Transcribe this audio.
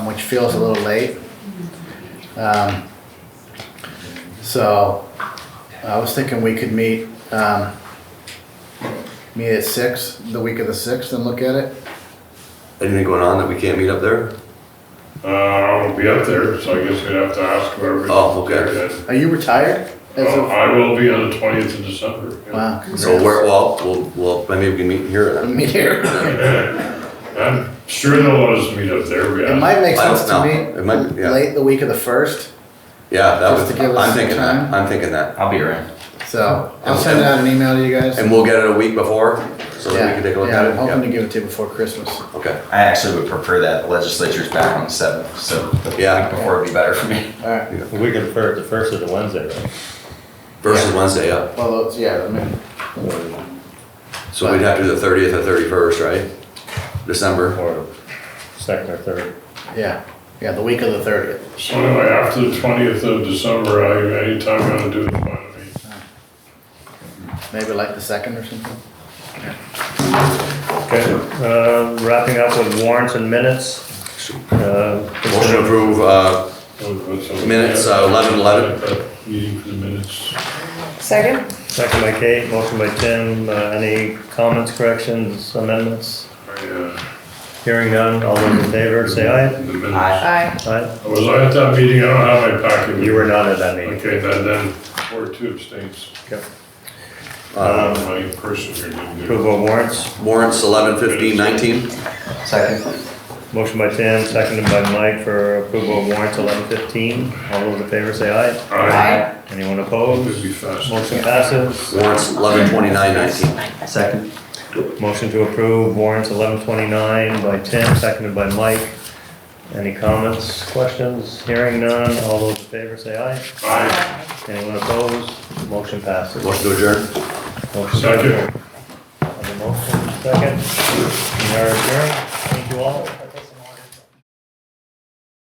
which feels a little late. Um, So I was thinking we could meet, um, meet at six, the week of the sixth and look at it. Anything going on that we can't meet up there? Uh, I won't be up there, so I guess we'd have to ask whoever. Oh, okay. Are you retired? As Uh, of, I will be on the twentieth of December. yeah. wow. So where, well, we'll, well, maybe we can meet here then. Me here. I'm sure they'll let us meet up there, It yeah. might make I don't sense to know. me. It might be- yeah. Late the week of the first, Yeah, that Just was, to give us I'm some thinking time. that, I'm thinking that. I'll be around. so I'll And- send out an email to you guys. And we'll get it a week before, so that we Yeah, can take a look yeah, at I'm hoping to it? give it to you before Christmas. Yeah, okay. I actually would prefer that. The legislature's back on the seventh, so the Yeah. week before would be better for me. All right, The week of the first, the first is the Wednesday, right? Versus Wednesday, yeah. well, those- yeah, I mean, So we'd have to do the thirtieth or thirty-first, right? December. Or second or third. yeah, yeah, the week of the thirtieth. So anyway, after the twentieth of December, I, anytime you wanna do it, fine with me. Maybe like the second or something? Okay, um, wrapping up with warrants and minutes. Uh, Motion to approve, uh, Minutes, uh, 11:11. Meeting for the minutes. Second? Second by Kate, motion by Tim, uh, any comments, corrections, amendments? I, uh, Hearing none, all those in favor, say aye. the minutes. Aye. Aye. Aye. Was I at that meeting? I don't have my packet. with You were not at that me. meeting. Okay, then, then, four, two abstains. Uh-huh. Okay. Uh, Um, my person here didn't do it. Approval of warrants, warrants eleven fifteen nineteen. Second? motion by Tim, seconded by Mike for approval of warrants eleven fifteen. All those in favor, say aye. Aye. Anyone It'd opposed? be fast. Motion passes. Warrants eleven twenty-nine nineteen. Second. Motion to approve warrants eleven twenty-nine by Tim, seconded by Mike. Any comments, questions? Hearing none, all those in favor say aye. Aye. Anyone opposed? Motion passes. Motion to adjourn. Motion to Second. adjourn. On the motion, second. We are adjourned. Thank you all.